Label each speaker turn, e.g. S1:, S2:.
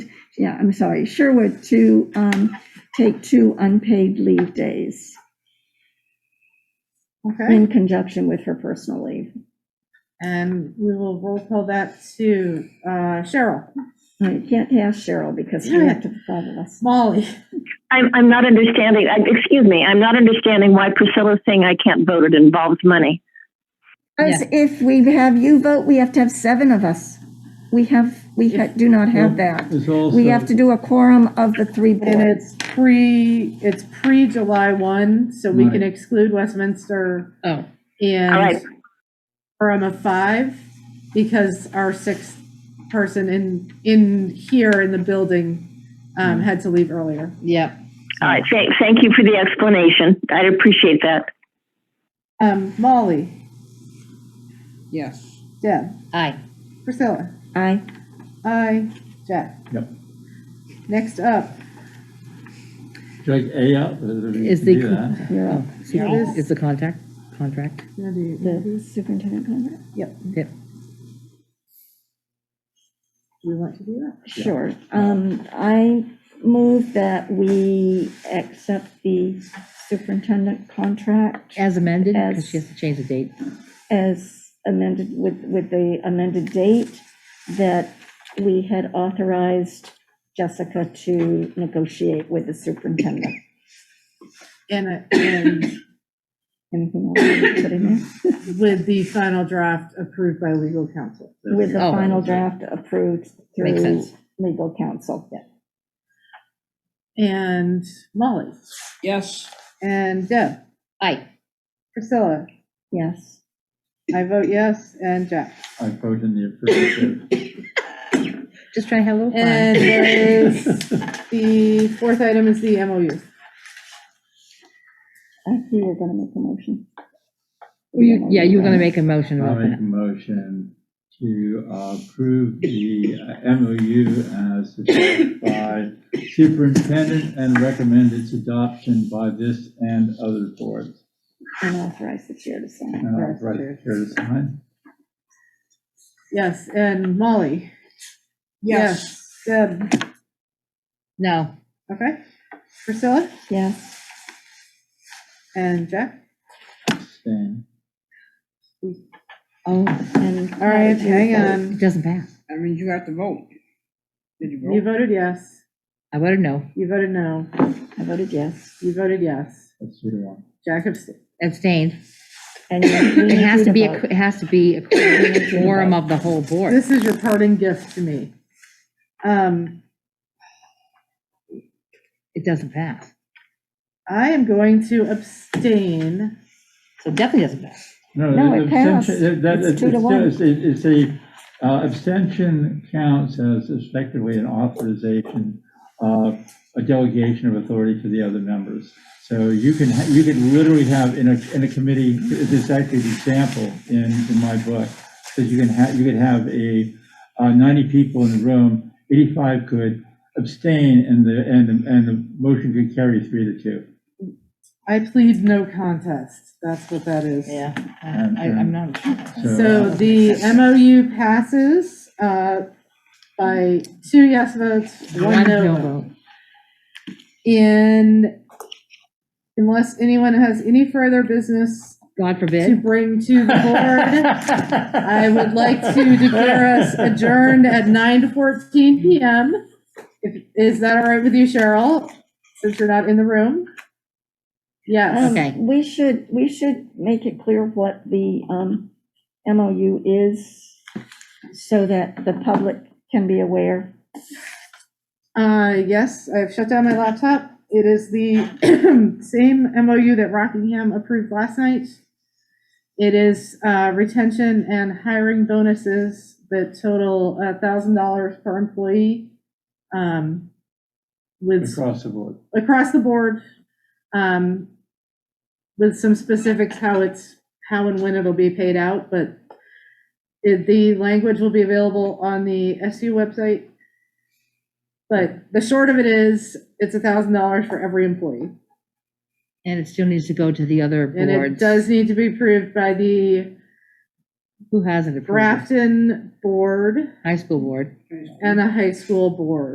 S1: yeah, I'm sorry, Sherwood to um, take two unpaid leave days
S2: Okay,
S1: in conjunction with her personal leave.
S2: and we will roll call that to uh, Cheryl,
S1: I can't ask Cheryl because we have to follow us.
S2: Molly,
S3: I'm, I'm not understanding, I- excuse me, I'm not understanding why Priscilla's saying I can't vote, it involves money.
S1: Because if we have you vote, we have to have seven of us. We have, we ha- do not have that.
S4: There's also.
S1: We have to do a quorum of the three
S2: and
S1: boards.
S2: it's pre, it's pre-July 1, so we can
S4: Right.
S2: exclude Westminster
S5: Oh,
S3: All right.
S2: and Durham of 5, because our sixth person in, in here in the building um, had to leave earlier.
S5: yep.
S3: All right, thank, thank you for the explanation, I'd appreciate that.
S2: Um, Molly,
S5: Yes.
S2: Deb,
S5: Aye.
S2: Priscilla,
S1: Aye.
S2: I, Jack.
S4: Yep.
S2: Next up,
S4: Drag A out. Is
S6: Is the-
S1: You're
S6: Oh,
S1: up.
S2: Yeah.
S6: Is the contact, contract?
S1: The superintendent contract?
S2: Yep.
S6: Yep.
S2: Do we want to do that?
S1: Sure. Um, I move that we accept the superintendent contract
S6: As amended, because
S1: As-
S6: she has to change the date.
S1: as amended, with, with the amended date that we had authorized Jessica to negotiate with the superintendent.
S2: And, uh, and
S1: Anything else you wanna put in there?
S2: with the final draft approved by legal counsel.
S1: With the
S6: Oh.
S1: final draft approved through
S6: Makes sense.
S1: legal counsel. Yeah.
S2: And Molly,
S5: Yes.
S2: and Deb,
S5: Aye.
S2: Priscilla,
S1: Yes.
S2: I vote yes, and Jack.
S4: I vote in the affirmative.
S6: Just try hello. Farm.
S2: And there is, the fourth item is the MOU.
S1: I think Uh, you were going to make a motion.
S6: Were you- Yeah, you were going to make a motion
S4: I'll
S6: about
S4: make
S6: that.
S4: a motion to uh, approve the uh, MOU as adopted by superintendent and recommend its adoption by this and other boards.
S1: And authorize the chair to sign.
S4: And I'll write here to sign.
S2: Yes, and Molly. Yes. Deb,
S6: No,
S2: okay, Priscilla,
S1: Yes.
S2: and Jack.
S4: Abstain.
S1: Oh. All
S2: All right, hang on.
S6: it doesn't pass.
S5: I mean, you have to vote. Did you
S2: You
S5: vote?
S2: voted yes,
S6: I voted no.
S2: you voted no,
S1: I voted yes.
S2: you voted yes.
S4: That's your one.
S2: Jack abstained.
S6: Abstained.
S1: And yet we
S6: It
S1: need
S6: has
S1: you
S6: to be, a
S1: vote.
S6: qu- it has to be a quorum of the whole board.
S2: This is your parting gift to me. Um,
S6: It doesn't pass.
S2: I am going to abstain.
S6: So it definitely doesn't pass.
S1: No, it
S4: abstention-
S1: passed.
S4: that- that-
S1: It's two to one.
S4: It's it's a, uh, abstention counts as effectively an authorization of a delegation of authority to the other members. So you can, ha- you could literally have in a, in a committee, this is actually an example in, in my book, that you can have, you could have a, uh, 90 people in the room, 85 could abstain and the, and, the- and the motion could carry three to two.
S2: I plead no contest. That's what that is.
S5: Yeah,
S4: And-
S5: I, I'm not.
S2: So the MOU passes, uh, by two yes votes, one
S6: One
S2: no
S6: no
S2: vote.
S6: vote.
S2: And unless anyone has any further business
S6: God
S2: to
S6: forbid.
S2: bring to the board, I would like to declare us adjourned at 9:14 PM. If- Is that all right with you, Cheryl, since you're not in the room? Yes,
S1: Um,
S6: Okay.
S1: We should, we should make it clear what the um, MOU is so that the public can be aware.
S2: Uh, yes, I've shut down my laptop. It is the same MOU that Rockingham approved last night. It is uh, retention and hiring bonuses that total $1,000 per employee um, with
S4: Across the board.
S2: across the board, um, with some specifics how it's, how and when it'll be paid out, but it- the language will be available on the SU website. But the short of it is, it's a thousand dollars for every employee.
S6: And it still needs to go to the other
S2: And it
S6: boards.
S2: does need to be approved by the
S6: Who hasn't approved it?
S2: Grafton Board
S6: High school board.
S2: and the High School Board.